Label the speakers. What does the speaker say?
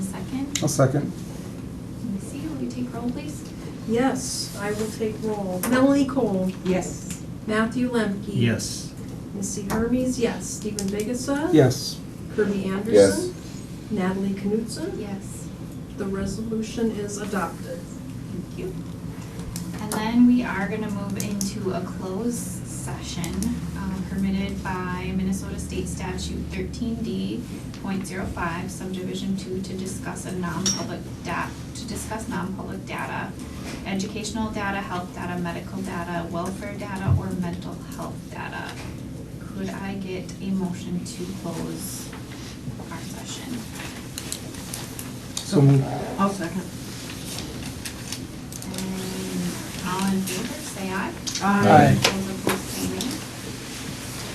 Speaker 1: I'll second.
Speaker 2: Ms. C, will you take roll, please?
Speaker 3: Yes, I will take roll. Melanie Cole,
Speaker 4: Yes.
Speaker 3: Matthew Lemke.
Speaker 5: Yes.
Speaker 3: Missy Hermes, yes. Stephen Vigasa.
Speaker 1: Yes.
Speaker 3: Kirby Anderson. Natalie Knutson.
Speaker 2: Yes.
Speaker 3: The resolution is adopted.
Speaker 2: Thank you. And then we are gonna move into a closed session um, permitted by Minnesota State Statute thirteen D point zero five subdivision two to discuss a non-public da, to discuss non-public data, educational data, health data, medical data, welfare data, or mental health data. Could I get a motion to close our session?
Speaker 1: So moved.
Speaker 4: I'll second.
Speaker 2: And all in favor, Mm, say aye.
Speaker 1: Aye.
Speaker 2: Those